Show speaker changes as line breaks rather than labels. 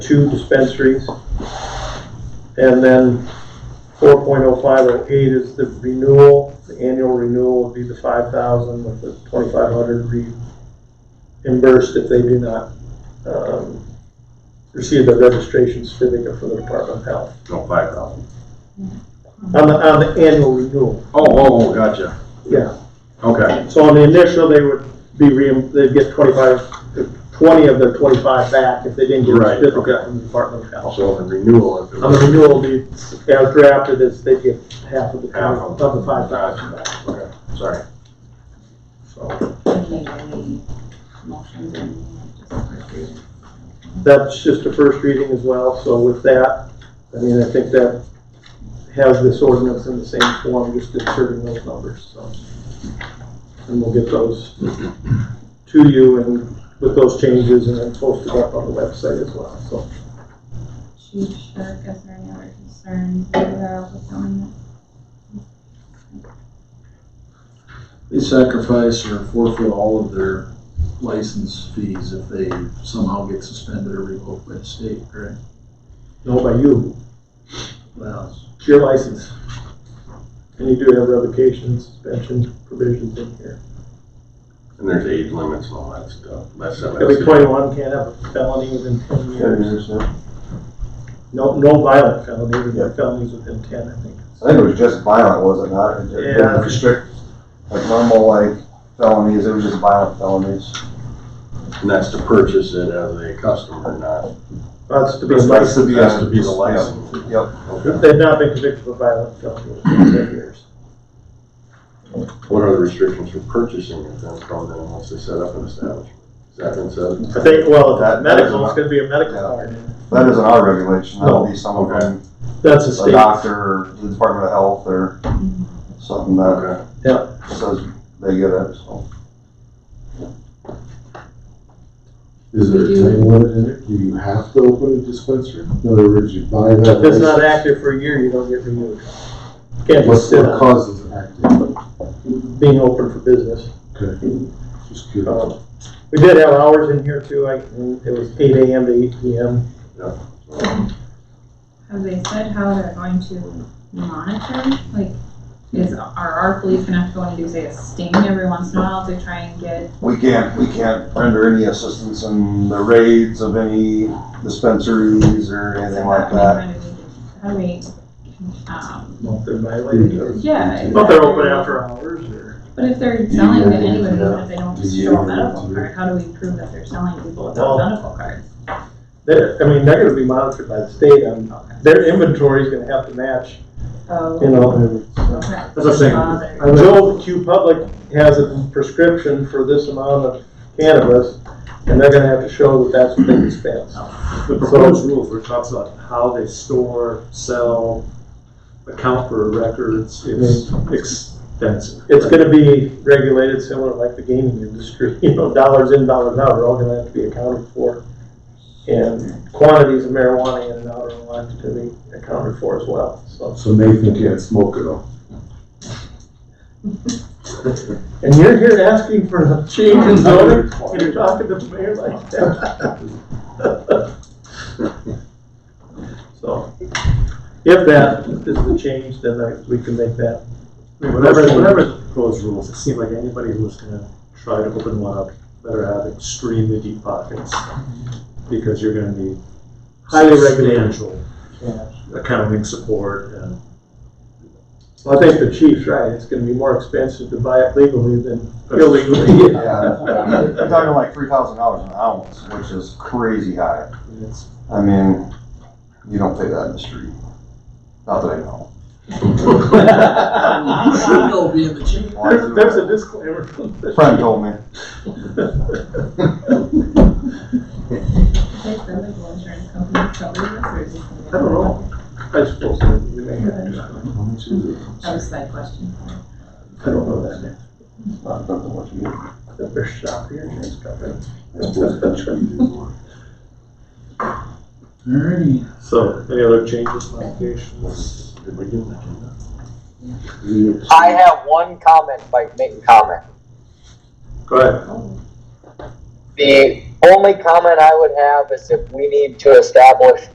two dispensaries. And then four point oh five oh eight is the renewal, the annual renewal would be the five thousand with the twenty-five hundred reimbursed if they do not, um, receive the registration certificate from the Department of Health.
No, Oh, five thousand.
On the, on the annual renewal,
Oh, oh, oh, gotcha.
yeah.
Okay,
So on the initial, they would be reim, they'd get twenty-five, twenty of their twenty-five back if they didn't get a
Right,
certificate
okay.
from the Department of Health.
also the renewal if it
On the
was.
renewal, the, as drafted, is they get half of the,
Half
of the five thousand back.
Okay, sorry. So,
make any motions and.
That's just a first reading as well, so with that, I mean, I think that has this ordinance in the same form, just inserting those numbers, so. And we'll get those to you and with those changes and then post it up on the website as well, so.
Chief Shirk, is there any other concerns about the ordinance?
They sacrifice or forfeit all of their license fees if they somehow get suspended or revoked by the state, correct?
No, by you,
Well,
it's your license. And you do have revocation, suspension provisions in here.
and there's age limits and all that stuff. That's something.
Every twenty-one can't have a felony within ten years.
I
No, no violent felony, but felonies within ten, I think.
think it was just violent, was it not? It
Yeah.
didn't restrict, like normal like felonies, it was just violent felonies.
And that's to purchase it as a customer, not,
That's to be
That's
licensed.
to be-
that's to be the license.
Yep.
Okay.
They've not been convicted of violent felony within ten years.
What are the restrictions for purchasing it then from then once they set up an establishment? Has that been said?
I think, well, if it's
That- that is
medical, it's
not-
gonna be a medical
yeah.
card.
That isn't our regulation, that'll be someone from
That's a
a
state.
doctor or the Department of Health or something that
Okay.
says they get it, so.
Is there a time limit in it? Do you have to open a dispensary? In other words, you buy that.
If it's not
license,
active for a year, you don't get renewed. Can't just
What's
sit
what
on
causes it active?
it being open for business.
Okay, just curious.
Um, We did have hours in here too, I, it was eight AM to eight PM.
Have they said how they're going to monitor? Like, is, are our police gonna have to go and do, say, a sting every once in a while to try and get?
We can't, we can't render any assistance in the raids of any dispensaries or anything like that.
How do we, um,
Well, they're
Mm-hmm.
violating it.
yeah.
But they're open after hours or?
But if they're selling to
Yeah,
anybody, even
yeah.
if they don't
Yeah.
show a medical card, how do we prove that they're selling to people
Well-
without medical cards?
They're, I mean, they're gonna be monitored by the state on, their inventory's gonna have to match, you
Oh,
know,
okay.
As I say, Uh, Joe Q Public has a prescription for this amount of cannabis, and they're gonna have to show that that's what they dispense.
The proposed rules, where it talks about how they store, sell, account for records, it's extensive.
It's gonna be regulated similar like the gaming industry, you know, dollars in, dollars out, are all gonna have to be accounted for. And quantities of marijuana in and out are all have to be accounted for as well, so.
So Nathan can't smoke at all.
And you're here asking for a change in zoning, and you're talking to the mayor like that. So, if that is the change, then I- we can make that.
I mean, Whatever, whatever the proposed rules, it seemed like anybody who was gonna try to open one up better have extremely deep pockets. Because you're gonna need
Highly regulated.
substantial
Yeah.
accounting support and
Well, I think the chief's right, it's gonna be more expensive to buy it legally than illegally.
Yeah, you're talking like three thousand dollars an ounce, which is crazy high.
it's,
I mean, you don't pay that in the street. Not that I know.
There's, there's a disclaimer.
Friend told me.
Like the legal insurance company covering this, or is this?
I don't know. I suppose we may have to,
How much is it?
That was a side question.
I don't know that,
Not that I know what you do.
if there's shop here, insurance company.
alrighty.
so, any other changes, modifications?
Did we get that?
I have one comment, if I can make a comment.
Go ahead.
The only comment I would have is if we need to establish